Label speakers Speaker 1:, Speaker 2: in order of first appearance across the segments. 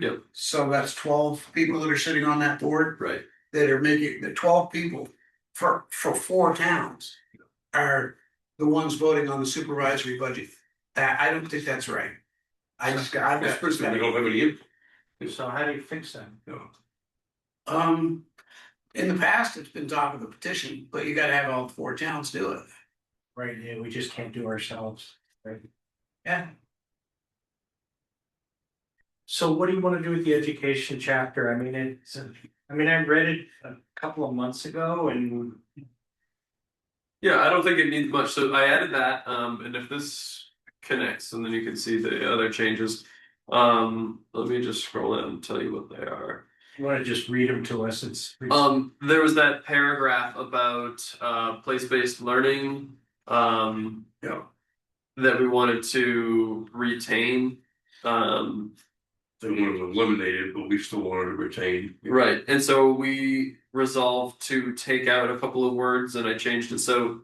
Speaker 1: Yep.
Speaker 2: So that's twelve people that are sitting on that board
Speaker 1: Right,
Speaker 2: that are making, the twelve people for, for four towns are the ones voting on the supervisory budget. That, I don't think that's right. I just, got- I
Speaker 1: that's
Speaker 2: just.
Speaker 1: personally, we don't have any input.
Speaker 3: So how do you fix that?
Speaker 1: no.
Speaker 2: Um, in the past, it's been top of the petition, but you gotta have all four towns do it.
Speaker 3: Right, yeah, we just can't do ourselves.
Speaker 2: Yeah.
Speaker 3: So what do you wanna do with the education chapter? I mean, it's, I mean, I read it a couple of months ago and.
Speaker 1: Yeah, I don't think it needs much, so I added that, um, and if this connects, and then you can see the other changes. Um, let me just scroll down and tell you what they are.
Speaker 3: You wanna just read them to us, it's.
Speaker 1: Um, there was that paragraph about uh place-based learning, um.
Speaker 2: Yeah.
Speaker 1: That we wanted to retain, um,
Speaker 4: They want to eliminate it, but we still want to retain.
Speaker 1: right, and so we resolved to take out a couple of words and I changed it, so.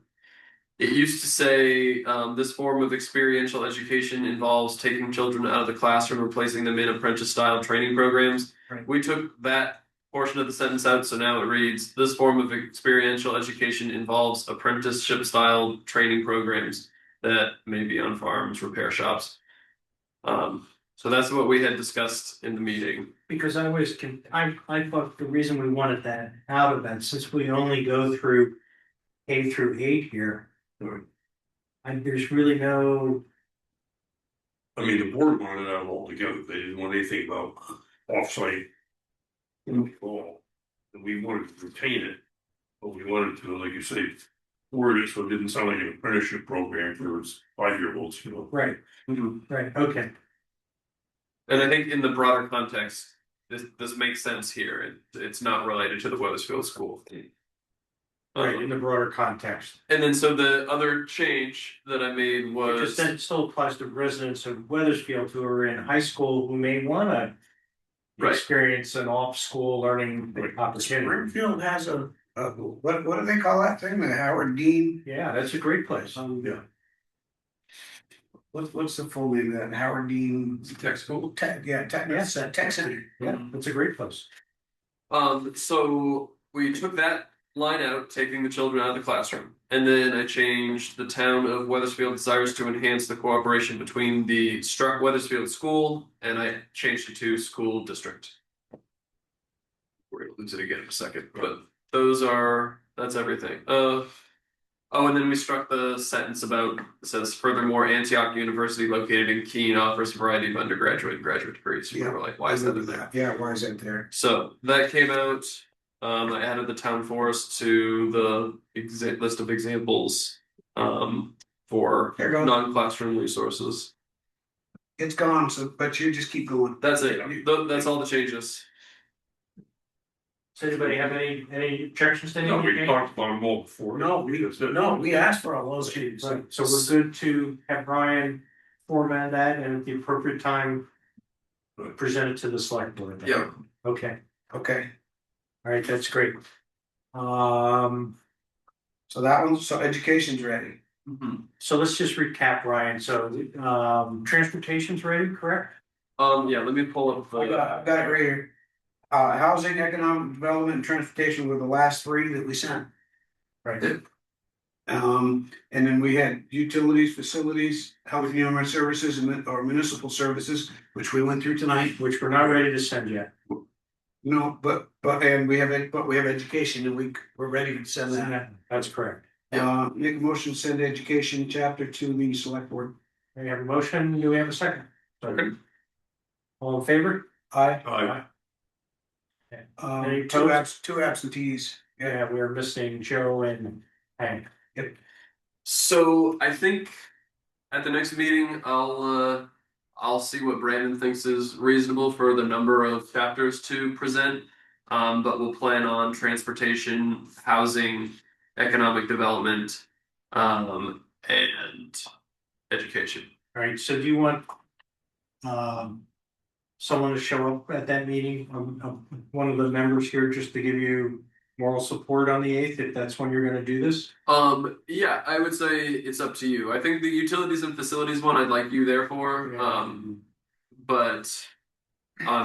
Speaker 1: It used to say, um, this form of experiential education involves taking children out of the classroom and placing them in apprentice-style training programs.
Speaker 3: Right.
Speaker 1: We took that portion of the sentence out, so now it reads, this form of experiential education involves apprenticeship style training programs that may be on farms, repair shops. Um, so that's what we had discussed in the meeting.
Speaker 3: Because I was, con- I, I thought the reason we wanted that out of that, since we only go through K through eight here.
Speaker 4: Right.
Speaker 3: And there's really no,
Speaker 4: I mean, the board wanted it out altogether. They didn't want anything about offsite.
Speaker 2: Mm-hmm.
Speaker 4: control. And we wanted to retain it, but we wanted to, like you say, word it so it didn't sound like an apprenticeship program for five year olds, you know.
Speaker 3: right, right, okay.
Speaker 1: And I think in the broader context, this this makes sense here. It, it's not related to the Weathersfield School.
Speaker 3: Right,
Speaker 1: Um,
Speaker 3: in the broader context.
Speaker 1: and then so the other change that I made
Speaker 3: Because
Speaker 1: was,
Speaker 3: that still applies to residents of Weathersfield who are in high school who may wanna.
Speaker 1: Right.
Speaker 3: Experience an off-school learning
Speaker 4: Right.
Speaker 3: opportunity.
Speaker 2: Springfield has a, a, what, what do they call that thing? The Howard Dean?
Speaker 3: Yeah, that's a great place.
Speaker 2: Um, yeah. What's, what's the full name of that? Howard Dean?
Speaker 1: Tech school?
Speaker 2: Tech, yeah, tech,
Speaker 3: Yes.
Speaker 2: uh, tech center.
Speaker 3: Yeah, that's a great place.
Speaker 1: Um, so we took that line out, taking the children out of the classroom. And then I changed the town of Weathersfield desires to enhance the cooperation between the Struck Weathersfield School and I changed it to school district. We're gonna lose it again in a second, but those are, that's everything. Uh, oh, and then we struck the sentence about, it says furthermore, Antioch University located in Keene offers a variety of undergraduate and graduate degrees. We
Speaker 2: Yeah.
Speaker 1: were like, why is that in there?
Speaker 2: Yeah, why is that there?
Speaker 1: So that came out. Um, I added the town forest to the exa- list of examples um, for
Speaker 2: There goes,
Speaker 1: non-classroom resources.
Speaker 2: it's gone, so, but you just keep going.
Speaker 1: That's it. Th- that's all the changes.
Speaker 3: Does anybody have any, any objections to
Speaker 4: No, we
Speaker 3: anything?
Speaker 4: talked about them all before.
Speaker 2: No, we,
Speaker 4: That's it.
Speaker 2: no, we asked for all those changes.
Speaker 3: Right, so we're good to have Brian format that and at the appropriate time. Present it to the select board. then.
Speaker 1: Yeah.
Speaker 3: Okay,
Speaker 2: Okay,
Speaker 3: all right, that's great. Um.
Speaker 2: so that one, so education's ready. Mm-hmm.
Speaker 3: So let's just recap, Ryan. So um transportation's ready, correct?
Speaker 1: Um, yeah, let me pull up
Speaker 2: I
Speaker 1: the.
Speaker 2: got, I've got it right here. Uh, housing, economic development and transportation were the last three that we sent.
Speaker 3: Right.
Speaker 2: Um, and then we had utilities, facilities, health and human services and mun- or municipal services, which we went through tonight.
Speaker 3: Which we're not ready to send yet.
Speaker 2: No, but, but, and we have, ed- but we have education and we, we're ready to send that.
Speaker 3: That's correct.
Speaker 2: Uh, make a motion, to send education chapter to the select board.
Speaker 3: We have a motion. Do we have a second?
Speaker 1: Second.
Speaker 3: All in favor?
Speaker 2: Aye.
Speaker 4: I,
Speaker 2: Um,
Speaker 3: Any
Speaker 2: two
Speaker 3: opposed?
Speaker 2: abs, two absentees.
Speaker 3: Yeah, we're missing Joe and Hank.
Speaker 1: So I think at the next meeting, I'll uh, I'll see what Brandon thinks is reasonable for the number of chapters to present. Um, but we'll plan on transportation, housing, economic development, um, and education.
Speaker 3: All right, so do you want um someone to show up at that meeting, um, um, one of the members here, just to give you moral support on the eighth, if that's when you're gonna do this?
Speaker 1: Um, yeah, I would say it's up to you. I think the utilities and facilities one, I'd like you there for. Um, but